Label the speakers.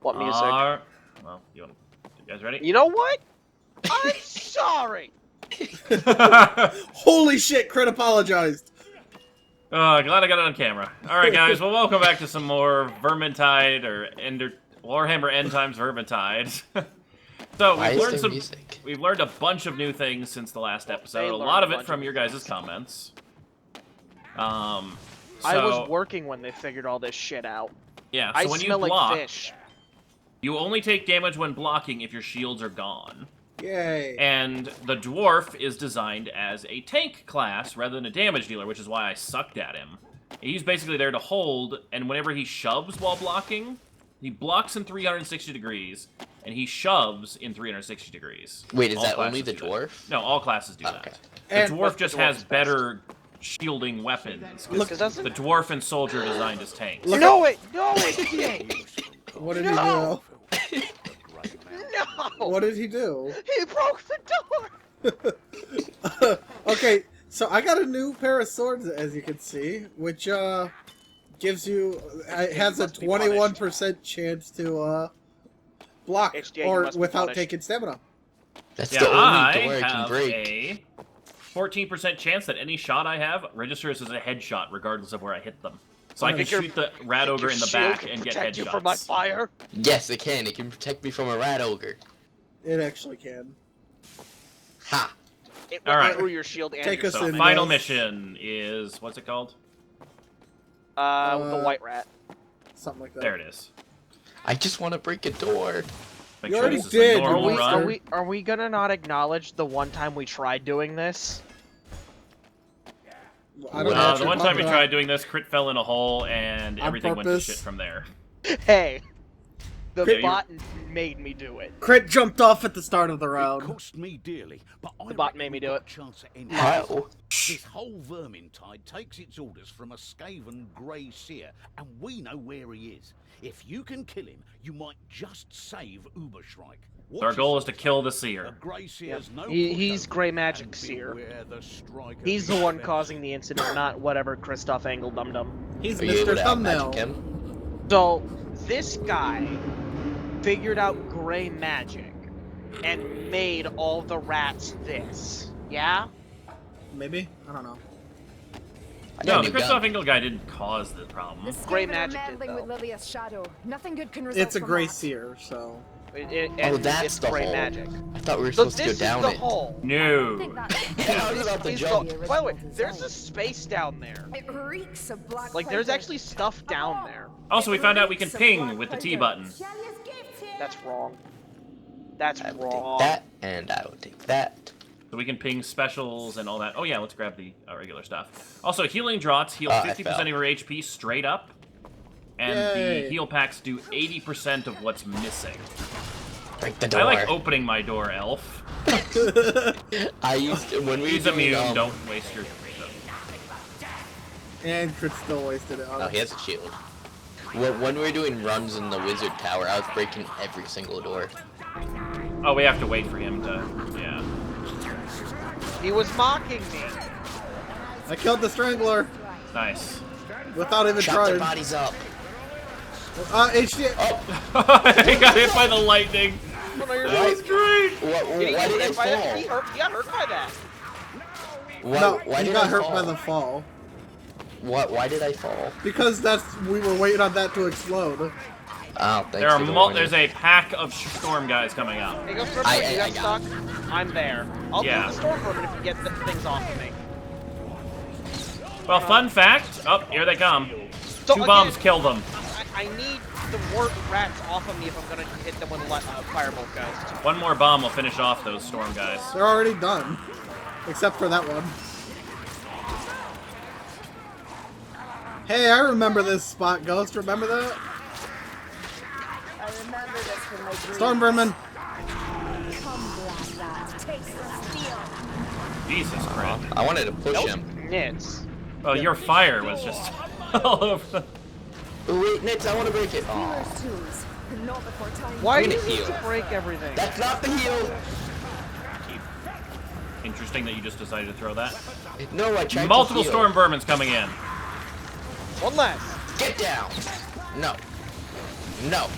Speaker 1: What music?
Speaker 2: Are- Well, you, want... you guys ready?
Speaker 1: You know what? I'm sorry.
Speaker 3: Holy shit, Crit apologized.
Speaker 2: Uh, glad I got it on camera. All right, guys. Well, welcome back to some more Vermintide or Ender Warhammer End Times Vermintide. so
Speaker 4: Why
Speaker 2: we've
Speaker 4: is
Speaker 2: learned
Speaker 4: there
Speaker 2: some.
Speaker 4: music?
Speaker 2: We've learned a bunch of new things since the last episode. A
Speaker 1: learned
Speaker 2: lot
Speaker 1: a
Speaker 2: of it
Speaker 1: bunch
Speaker 2: from
Speaker 1: of
Speaker 2: your
Speaker 1: new
Speaker 2: guys' comments. Um, so
Speaker 1: I was working when they figured all this shit out.
Speaker 2: yeah. So
Speaker 1: I
Speaker 2: when
Speaker 1: smell
Speaker 2: you
Speaker 1: like
Speaker 2: block,
Speaker 1: fish.
Speaker 2: you only take damage when blocking if your shields are gone.
Speaker 3: Yay.
Speaker 2: And the dwarf is designed as a tank class rather than a damage dealer, which is why I sucked at him. He's basically there to hold, and whenever he shoves while blocking, he blocks in 360 degrees, and he shoves in 360 degrees.
Speaker 4: Wait, is
Speaker 2: All
Speaker 4: that only
Speaker 2: classes
Speaker 4: the
Speaker 2: do that.
Speaker 4: dwarf?
Speaker 2: No, all classes do
Speaker 4: Okay.
Speaker 2: that. The
Speaker 3: And
Speaker 2: dwarf
Speaker 1: the
Speaker 2: just
Speaker 1: dwarf's
Speaker 2: has
Speaker 1: best.
Speaker 2: better shielding weapons. 'cause
Speaker 3: Look-
Speaker 1: Cause doesn't...
Speaker 2: the dwarf and soldier designed as tanks.
Speaker 3: Look-
Speaker 1: no, it, no, it
Speaker 3: What did
Speaker 1: No!
Speaker 5: Right now.
Speaker 1: can't.
Speaker 3: he do?
Speaker 1: No.
Speaker 3: What did he do?
Speaker 1: He broke the door.
Speaker 3: okay, so I got a new pair of swords, as you can see, which uh gives you it has a
Speaker 1: must be
Speaker 3: twenty one percent chance to uh block
Speaker 1: HDA, you
Speaker 3: or
Speaker 1: must be
Speaker 3: without
Speaker 1: punished.
Speaker 3: taking stamina.
Speaker 4: That's
Speaker 2: Yeah,
Speaker 4: the only
Speaker 2: I
Speaker 4: door I can
Speaker 2: have
Speaker 4: break.
Speaker 2: a 14% chance that any shot I have registers as a headshot, regardless of where I hit them. So I
Speaker 3: Oh,
Speaker 2: can
Speaker 1: your-
Speaker 2: shoot the rat ogre
Speaker 1: Your
Speaker 2: in the
Speaker 1: shield
Speaker 2: back
Speaker 1: can
Speaker 2: and get
Speaker 1: protect you from my
Speaker 2: headshots.
Speaker 1: fire.
Speaker 4: Yes, it can. It can protect me from a rat ogre.
Speaker 3: It actually can.
Speaker 4: Ha!
Speaker 1: It went
Speaker 2: All right.
Speaker 1: through your shield and
Speaker 3: Take
Speaker 1: your
Speaker 3: us
Speaker 2: So
Speaker 3: in,
Speaker 1: stomach.
Speaker 2: final
Speaker 3: guys.
Speaker 2: mission is what's it called?
Speaker 1: Uh, the
Speaker 3: Uh,
Speaker 1: white rat.
Speaker 3: Something like that.
Speaker 2: There it is.
Speaker 4: I just want to break a door.
Speaker 2: Make
Speaker 3: You
Speaker 2: sure
Speaker 3: already
Speaker 2: this is
Speaker 3: did,
Speaker 2: a
Speaker 3: you
Speaker 1: Are
Speaker 2: normal
Speaker 1: we,
Speaker 2: run.
Speaker 1: are we are we gonna not acknowledge the one time we tried doing this?
Speaker 3: I don't know
Speaker 2: Uh, the
Speaker 3: what you're
Speaker 2: one time we
Speaker 3: talking
Speaker 2: tried doing this, crit fell in a hole and
Speaker 3: On
Speaker 2: everything went to
Speaker 3: purpose.
Speaker 2: shit from there.
Speaker 1: Hey, the
Speaker 2: Crit-
Speaker 1: bot made me do it.
Speaker 3: about. Crit jumped off at the start of the
Speaker 5: It
Speaker 3: round.
Speaker 5: cost me dearly, but I
Speaker 1: The bot
Speaker 5: reckon
Speaker 1: made me
Speaker 5: we've
Speaker 1: do
Speaker 5: got
Speaker 1: it.
Speaker 5: a Chance at ending this.
Speaker 4: How?
Speaker 5: This whole vermintide takes its orders from a skaven grey seer, and we know where he is. If you can kill him, you might just save Uberschreik.
Speaker 2: So our goal is to kill the seer.
Speaker 5: grey seer's no
Speaker 1: He- he's
Speaker 5: pushover,
Speaker 1: grey magic
Speaker 5: and
Speaker 1: seer.
Speaker 5: beware the striker
Speaker 1: He's the
Speaker 5: who
Speaker 1: one
Speaker 5: spends-
Speaker 1: causing the incident, not whatever Christoph Angle dum dum.
Speaker 3: He's
Speaker 4: Are you able
Speaker 3: Mr.
Speaker 4: to outmagic
Speaker 3: Thumbnail.
Speaker 4: him?
Speaker 1: So this guy figured out gray magic and made all the rats this. Yeah?
Speaker 3: Maybe? I don't know.
Speaker 4: I got
Speaker 2: No,
Speaker 4: a
Speaker 2: the
Speaker 4: new
Speaker 2: Christoph
Speaker 4: gun.
Speaker 2: Engel guy didn't cause the problem.
Speaker 6: The
Speaker 1: Grey
Speaker 6: Skaven are
Speaker 1: magic did,
Speaker 6: meddling with
Speaker 1: though.
Speaker 6: Lilia's shadow. Nothing good can result
Speaker 3: It's a
Speaker 6: from
Speaker 3: gray
Speaker 6: that.
Speaker 3: seer, so
Speaker 1: It, it,
Speaker 4: Oh,
Speaker 1: and
Speaker 4: that's
Speaker 1: it's
Speaker 4: the
Speaker 1: gray
Speaker 4: hole.
Speaker 1: magic.
Speaker 4: I thought we were
Speaker 1: So
Speaker 4: supposed to go
Speaker 1: this
Speaker 4: down
Speaker 1: is the
Speaker 4: it.
Speaker 1: hole.
Speaker 6: I think
Speaker 2: No.
Speaker 6: that's-
Speaker 4: I was about to
Speaker 1: Is the-
Speaker 4: jump.
Speaker 1: by the way, there's a space down there.
Speaker 6: It reeks of black
Speaker 1: Like, there's
Speaker 6: powder.
Speaker 1: actually stuff down there.
Speaker 2: Also, we found out we can
Speaker 6: Reeks of
Speaker 2: ping
Speaker 6: black
Speaker 2: with the T
Speaker 6: powder.
Speaker 2: button.
Speaker 1: That's wrong. That's
Speaker 4: I will
Speaker 1: wrong.
Speaker 4: take that, and I will take that.
Speaker 2: So we can ping specials and all that. Oh yeah, let's grab the uh, regular stuff. Also, healing draughts heal
Speaker 4: Oh, I
Speaker 2: 50% of
Speaker 4: fell.
Speaker 2: your HP straight up, and the
Speaker 3: Yay.
Speaker 2: heal packs do 80% of what's missing.
Speaker 4: Break the door.
Speaker 2: I like opening my door, Elf.
Speaker 4: I used to, when we
Speaker 2: He's
Speaker 4: were doing,
Speaker 2: immune.
Speaker 4: um,
Speaker 2: Don't waste your.
Speaker 3: and Crit still wasted it on
Speaker 4: Oh, he has a shield. When, when we were doing runs in the wizard tower, I was breaking every single door.
Speaker 2: Oh, we have to wait for him to. Yeah.
Speaker 1: He was mocking me.
Speaker 3: I killed the strangler
Speaker 2: Nice.
Speaker 3: without even
Speaker 4: Chop their
Speaker 3: trying.
Speaker 4: bodies up. Oh,
Speaker 3: Uh HDA
Speaker 2: I got hit by the lightning.
Speaker 1: Oh, no, you're
Speaker 4: Right.
Speaker 1: right.
Speaker 2: Great.
Speaker 4: What, why
Speaker 1: Did he get
Speaker 4: did
Speaker 1: hit
Speaker 4: I
Speaker 1: by that?
Speaker 4: fall?
Speaker 1: He, hurt, he got hurt by that.
Speaker 4: Why,
Speaker 3: no,
Speaker 4: why
Speaker 3: he
Speaker 4: did
Speaker 3: got
Speaker 4: I
Speaker 3: hurt
Speaker 4: fall?
Speaker 3: by the fall.
Speaker 4: What? Why did I fall?
Speaker 3: Because that's we were waiting on that to explode.
Speaker 4: Oh, thanks
Speaker 2: There are
Speaker 4: for the
Speaker 2: mul-
Speaker 4: warning.
Speaker 2: There's a pack of storm guys coming up.
Speaker 1: He goes, remember
Speaker 4: I-
Speaker 1: when you
Speaker 4: I-
Speaker 1: got
Speaker 4: I got
Speaker 1: stuck? I'm there. I'll
Speaker 2: Yeah.
Speaker 1: do the storm vermin if you get the things off of me.
Speaker 2: Well, fun fact. Oh, here they come.
Speaker 1: So
Speaker 2: Two
Speaker 1: again,
Speaker 2: bombs kill them.
Speaker 1: I, I need the word rats off of me if I'm gonna hit them with a le- uh, firebolt ghost.
Speaker 2: One more bomb will finish off those storm guys.
Speaker 3: They're already done. Except for that one. Hey, I remember this spot, Ghost. Remember that?
Speaker 6: I remember this from my dream.
Speaker 3: Storm Vermin.
Speaker 6: Come, black rat. Take some steel.
Speaker 2: Jesus Christ.
Speaker 4: I wanted to push him.
Speaker 1: Nits.
Speaker 2: Well, your fire was just all over. the-
Speaker 4: Oh, wait, Nitz, I want to break it. Aw,
Speaker 6: Healers tools. Not before time.
Speaker 1: Why
Speaker 4: I'm
Speaker 1: do
Speaker 4: gonna
Speaker 1: you need
Speaker 4: heal.
Speaker 1: to break everything?
Speaker 4: that's not the heal.
Speaker 2: Interesting that you just decided to throw that.
Speaker 4: No, I tried
Speaker 2: Multiple
Speaker 4: to heal.
Speaker 2: storm vermin's coming in.
Speaker 1: One less.
Speaker 4: Get down. No. No.